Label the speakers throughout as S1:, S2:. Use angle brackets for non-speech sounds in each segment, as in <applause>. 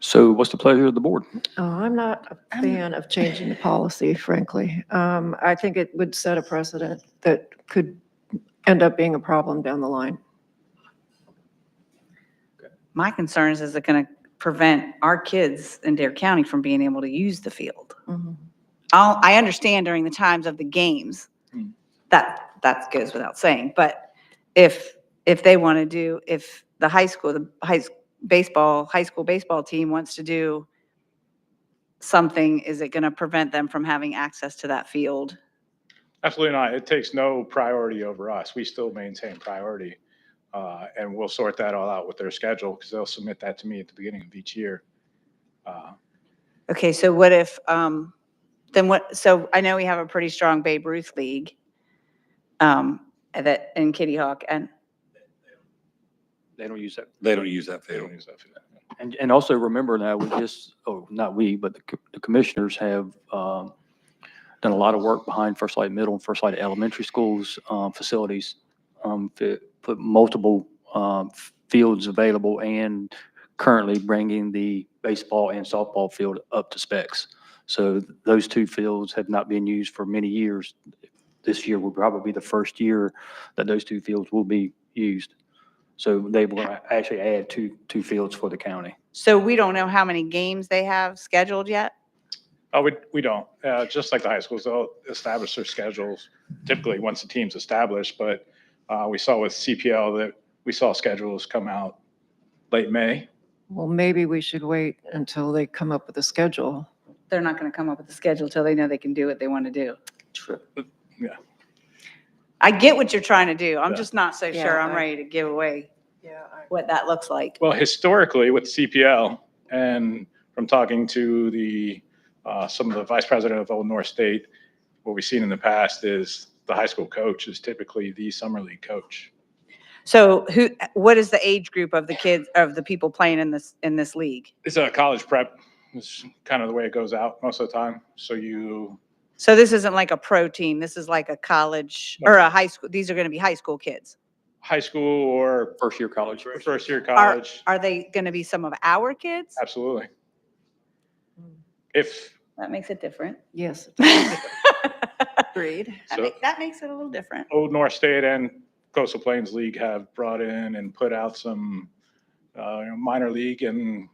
S1: So what's the pleasure of the board?
S2: Oh, I'm not a
S3: I'm-
S2: fan of changing the policy, frankly. Um, I think it would set a precedent that could end up being a problem down the line.
S3: My concern is, is it going to prevent our kids in Dare County from being able to use the field?
S2: Mm-hmm.
S3: I'll, I understand during the times of the games,
S1: Mm.
S3: that, that goes without saying, but if, if they want to do, if the high school, the high, s- baseball, high school baseball team wants to do something, is it going to prevent them from having access to that field?
S4: Absolutely not. It takes no priority over us. We still maintain priority. uh, And we'll sort that all out with their schedule because they'll submit that to me at the beginning of each year. Uh,
S3: Okay, so what if, um, then what, so I know we have a pretty strong Babe Ruth League, um, that, in Kitty Hawk, and,
S1: They don't use that.
S5: They don't use that
S4: they
S5: field.
S4: don't use that for that.
S1: And, and also remember now, we just, oh, not we, but the co- the commissioners have um, done a lot of work behind First Light Middle and First Light Elementary Schools um, facilities. um, to Put multiple um, f- fields available and currently bringing the baseball and softball field up to specs. So those two fields have not been used for many years. This year will probably be the first year that those two fields will be used. So they will actually add two, two fields for the county.
S3: so we don't know how many games they have scheduled yet?
S4: Oh, we, we don't. Uh, Just like the high schools, they'll establish their schedules typically once the team's established. But uh, we saw with CPL that we saw schedules come out late May.
S2: Well, maybe we should wait until they come up with a schedule.
S3: They're not gonna come up with a schedule till they know they can do what they want to do.
S2: True.
S3: I get what you're trying to do, I'm
S4: Yeah.
S3: just not so
S2: Yeah,
S3: sure I'm
S2: I-
S3: ready to give away
S2: Yeah.
S3: what that looks like.
S4: Well, historically with CPL and from talking to the, uh, some of the vice president of Old North State, what we've seen in the past is the high school coach is typically the summer league coach.
S3: So who, what is the age group of the kids, of the people playing in this, in this league?
S4: It's a college prep, it's kind of the way it goes out most of the time. So you,
S3: So this isn't like a pro team, this is like a college, or a high school, these are gonna be high school kids?
S4: high school or
S1: First year college.
S4: first year college,
S3: Are they going to be some of our kids?
S4: absolutely. If,
S3: That makes it <laughs> different.
S2: Yes, <laughs>
S3: That
S1: <laughs>
S2: agreed.
S4: so
S3: make- that makes it a little different.
S4: Old North State and Coastal Plains League have brought in and put out some uh, you know, minor league, and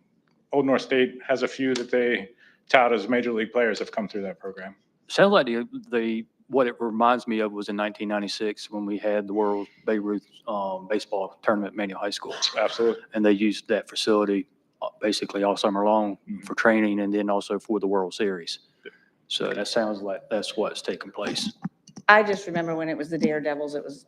S4: Old North State has a few that they tout as major league players have come through that program.
S1: Sounds like the, the, what it reminds me of was in 1996 when we had the World Beirut um, Baseball Tournament at Manual High School.
S4: Absolutely.
S1: And they used that facility uh, basically all summer long for training and then also for the World Series. So that sounds like that's what's taking <laughs> place.
S3: I just remember when it was the Daredevils, it was,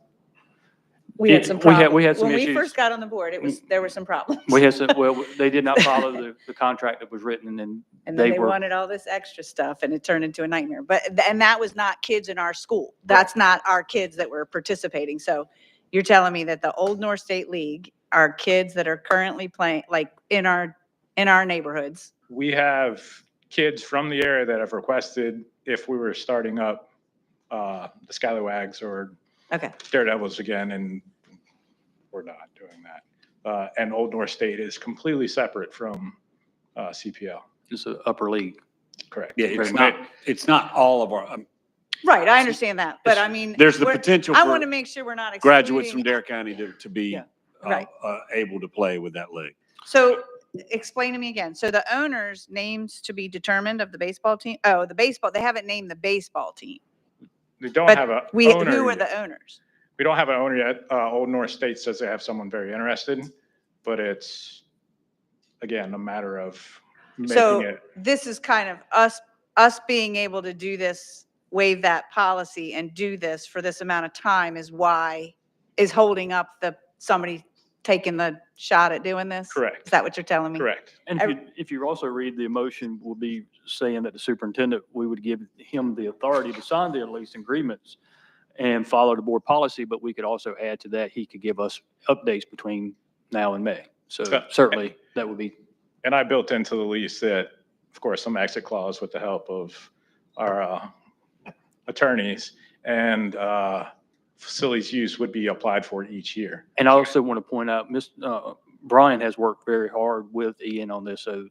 S3: we
S1: Yeah,
S3: had some
S1: we had-
S3: problems.
S1: we had some
S3: When we
S1: issues. Mm.
S3: first got on the board, it was, there were some problems.
S1: We had some, well, they did not follow the, the contract that was written and
S3: And then
S1: they
S3: they
S1: were-
S3: wanted all this extra stuff and it turned into a nightmare. But, th- and that was not kids in our school. That's not our kids that were participating. So you're telling me that the Old North State League are kids that are currently playing, like in our, in our neighborhoods?
S4: We have kids from the area that have requested if we were starting up uh, the Skylawags or
S3: Okay.
S4: Daredevils again, and we're not doing that. Uh, And Old North State is completely separate from uh, CPL,
S1: it's an upper league.
S4: correct?
S5: Yeah, it's
S1: Right.
S5: not, it's not all of our, um,
S3: Right, I understand that, but I mean.
S5: there's the
S3: we're-
S5: potential
S3: I want to
S5: for
S3: make sure we're not
S5: graduates from
S3: excluding-
S5: Dare County to, to be
S1: Yeah,
S5: uh,
S3: right.
S5: uh, able to play with that league.
S3: So explain to me again. So the owners' names to be determined of the baseball team? Oh, the baseball, they haven't named the baseball team.
S4: We don't
S3: But
S4: have a
S3: We,
S4: owner
S3: who are
S4: yet.
S3: the owners?
S4: We don't have an owner yet. Uh, Old North State says they have someone very interested, but it's, again, a matter of
S3: So-
S4: making it.
S3: This is kind of us, us being able to do this, waive that policy and do this for this amount of time is why, is holding up the, somebody taking the shot at doing this? Is
S4: Correct,
S3: that what you're telling me?
S4: correct.
S1: And if
S3: Ev-
S1: you, if you also read the motion, will be saying that the superintendent, we would give him the authority to sign the lease agreements and follow the board policy, but we could also add to that, he could give us updates between now and May. So
S4: Yeah.
S1: certainly, that would be,
S4: And I built into the lease that, of course, some exit clause with the help of our uh, attorneys and uh, facilities use would be applied for each year.
S1: and I also want to point out, Ms., uh, Brian has worked very hard with Ian on this, so